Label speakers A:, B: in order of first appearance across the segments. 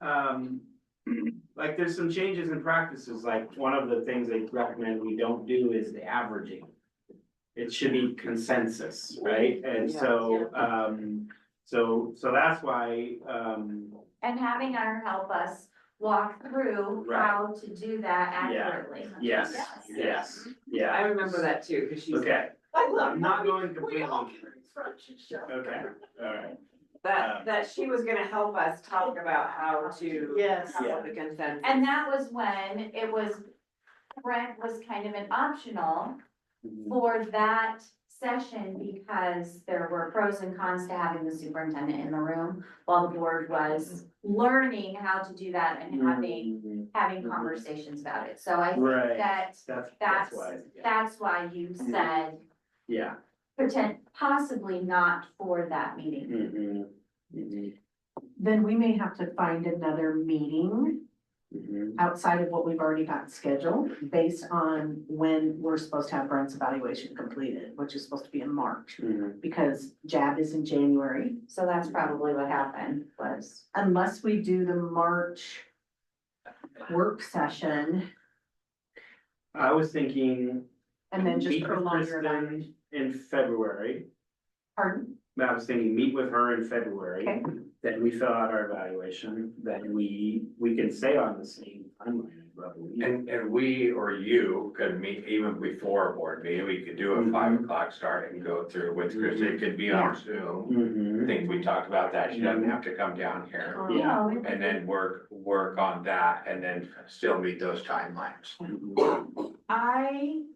A: um, like there's some changes in practices, like one of the things they recommend we don't do is the averaging. It should be consensus, right? And so, um, so, so that's why, um,
B: And having her help us walk through
A: Right.
B: how to do that
A: Yeah.
B: accurately.
A: yes,
B: Yes.
A: yes, yeah,
C: I remember that too, because she's.
A: okay.
C: I
A: I'm
C: love
A: not
C: not
A: going
C: we
A: completely,
C: all can confront each other.
A: okay, all right, Um,
C: That, that she was gonna help us talk about how to.
D: Yes.
C: come
A: Yeah.
C: up with a consensus.
B: And that was when it was, rent was kind of an optional
A: Mm.
B: for that session because there were pros and cons to having the superintendent in the room while the board was
A: Mm-hmm.
B: learning how to do that and having, having
A: Mhm.
B: conversations about it. So I think
A: Right.
B: that
A: That's, that's
B: that's,
A: why, yeah. Mm-hmm.
B: that's why you said
A: yeah.
B: pretend possibly not for that meeting.
A: Mhm. Mhm.
D: Then we may have to find another meeting
A: Mhm.
D: outside of what we've already got scheduled based on when we're supposed to have Brent's evaluation completed, which is supposed to be in March.
A: Mhm.
D: Because JAB is in January,
B: So that's probably what happened was.
D: unless we do the March work session
A: I was thinking
D: and then just
A: meet with
D: prolong your evaluation.
A: Kristen in February,
D: Pardon?
A: I was thinking meet with her in February.
D: Okay.
A: Then we fill out our evaluation, then we, we can stay on the same timeline, I believe.
E: And, and we or you could meet even before a board meeting, we could do a five
A: Mhm.
E: o'clock start and go through with Chris, it could be on Zoom. I
A: Mhm.
E: think we talked about that, she doesn't have to come down
D: Oh,
E: here,
C: Uh-huh.
A: Yeah.
E: and then work, work on that, and then still meet those timelines.
A: Mhm.
B: I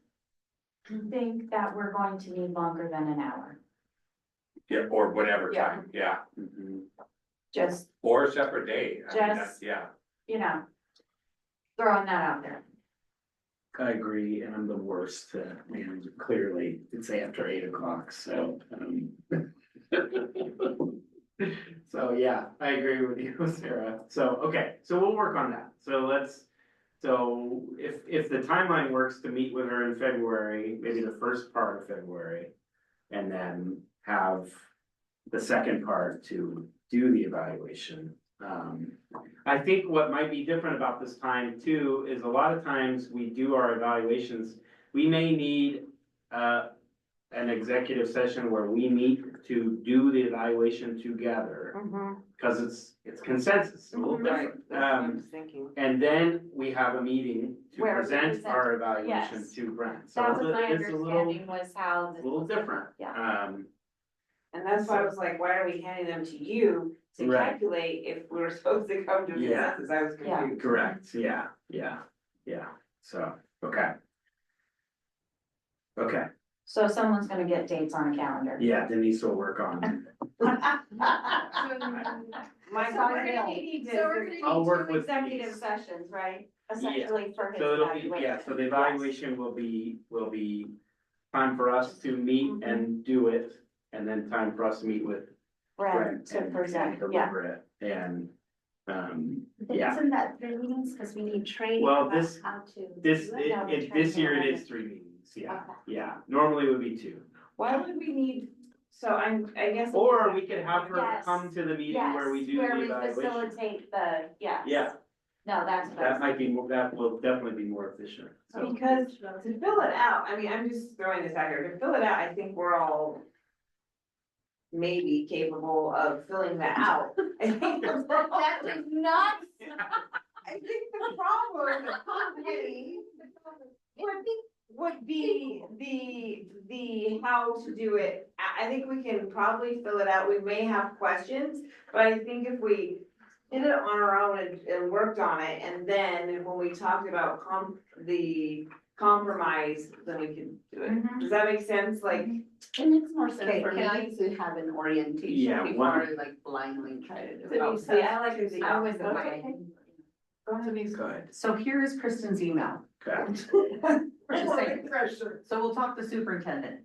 B: think that we're going to need longer than an hour,
E: Yeah, or whatever time, yeah,
A: Mhm.
B: just,
E: or a separate date, I mean, that's,
B: Just-
E: yeah,
B: you know, throwing that out there.
A: I agree, and I'm the worst, uh, and clearly, it's after eight o'clock, so, um. So, yeah, I agree with you, Sarah, so, okay, so we'll work on that, so let's, so if, if the timeline works to meet with her in February, maybe the first part of February. And then have the second part to do the evaluation, um. I think what might be different about this time too is a lot of times we do our evaluations, we may need uh an executive session where we meet to do the evaluation together, cause it's it's consensus, a little
B: Mhm.
C: Right,
A: different.
C: that's what I
A: Um,
C: was thinking.
A: and then we have a meeting to
B: Where we
A: present
B: present,
A: our evaluation
B: yes.
A: to Brent, so
B: That
A: it's
B: was my
A: a- it's a little,
B: understanding was how. the-
A: little different.
B: Yeah.
A: Um,
C: And that's why I was like, why are we handing them to you to
A: Right.
C: calculate if we're supposed to come to
A: Yeah.
C: consensus? I was
B: Yeah.
C: confused.
A: Correct, yeah, yeah, yeah, so, okay. Okay,
B: So someone's gonna get dates on a calendar.
A: yeah, Denise will work on,
C: My
B: So we're gonna
C: God.
B: need,
C: so
B: so
C: we're
B: we're
A: I'll
B: gonna
A: work
B: need two
A: with
B: executive
A: these.
B: sessions, right?
A: Yeah.
B: Essentially for his
A: so it'll
B: evaluation.
A: be, yeah, so the evaluation will be, will be time for us to meet
B: Mm-hmm.
A: and do it, and then time for us to meet with
B: Right,
A: Brent
B: to
A: and and
B: present, yeah.
A: deliver it, and, um, yeah.
F: Isn't that three meetings, cause we need training
A: Well,
F: about
A: this-
F: how to.
A: This,
F: do
A: it,
B: Yeah, we
A: it,
B: try to
A: this year it
B: have
A: is three meetings, yeah,
B: Okay.
A: yeah, normally it would be two.
C: Why would we need, so I'm, I guess.
A: Or we could have her
B: Yes.
A: come to the meeting where we
B: Yes,
A: do the
B: where we
A: evaluation.
B: Facilitate the, yes.
A: Yeah.
B: No, that's what I
A: That
B: was,
A: might be, more. that will definitely be more efficient, so.
C: Because to fill it out, I mean, I'm just throwing this out here, to fill it out, I think we're all. Maybe capable of filling that out. I think the problem,
B: that does not,
C: I think the problem, the comedy would be, would be the, the how to do it. I, I think we can probably fill it out, we may have questions, but I think if we did it on our own and, and worked on it, and then when we talked about com, the compromise, then we could do it.
B: Mhm.
C: Does that make sense? Like,
G: And it's more sense
D: Okay,
G: for
D: can
G: me to have an
A: Yeah,
G: orientation
A: one-
G: before I like blindly try to do it.
C: oh, see, I like the.
B: I was
C: Okay.
B: away.
A: Good,
D: So here is Kristen's email.
A: okay.
D: Just saying.
C: Pressure.
D: So we'll talk to superintendent.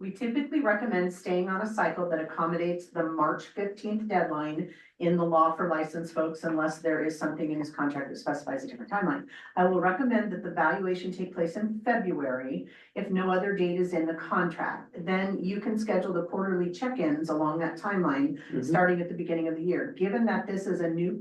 D: We typically recommend staying on a cycle that accommodates the March fifteenth deadline in the law for licensed folks unless there is something in his contract that specifies a different timeline. I will recommend that the valuation take place in February if no other date is in the contract. Then you can schedule the quarterly check-ins along that timeline,
A: Mhm.
D: starting at the beginning of the year. Given that this is a new